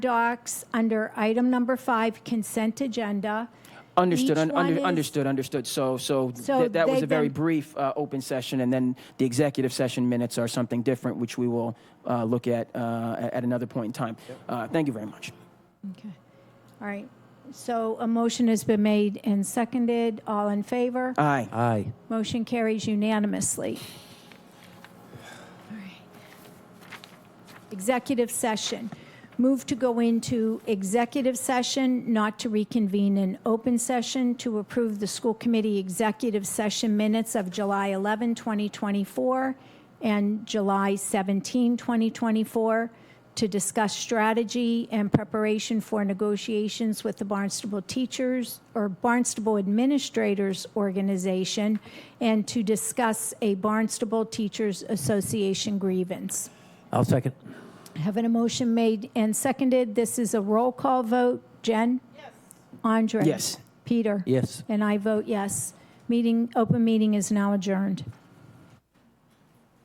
docs under item number five, consent agenda. Understood, Each un- one under- is- understood, understood. So, so So th- that was they've a very been- brief uh, open session, and then the executive session minutes are something different, which we will uh, look at uh, a- at another point in time. Uh, Thank you very much. Okay. All right. So a motion has been made and seconded. All in favor? Aye. Aye. Motion carries unanimously. All right. Executive session. Move to go into executive session, not to reconvene in open session, to approve the school committee executive session minutes of July 11, 2024, and July 17, 2024, to discuss strategy and preparation for negotiations with the Barnstable Teachers or Barnstable Administrators Organization, and to discuss a Barnstable Teachers Association grievance. I'll second. Having a motion made and seconded, this is a roll call vote. Jen? Yes. Andre? Yes. Peter? Yes. And I vote yes. Meeting, open meeting is now adjourned.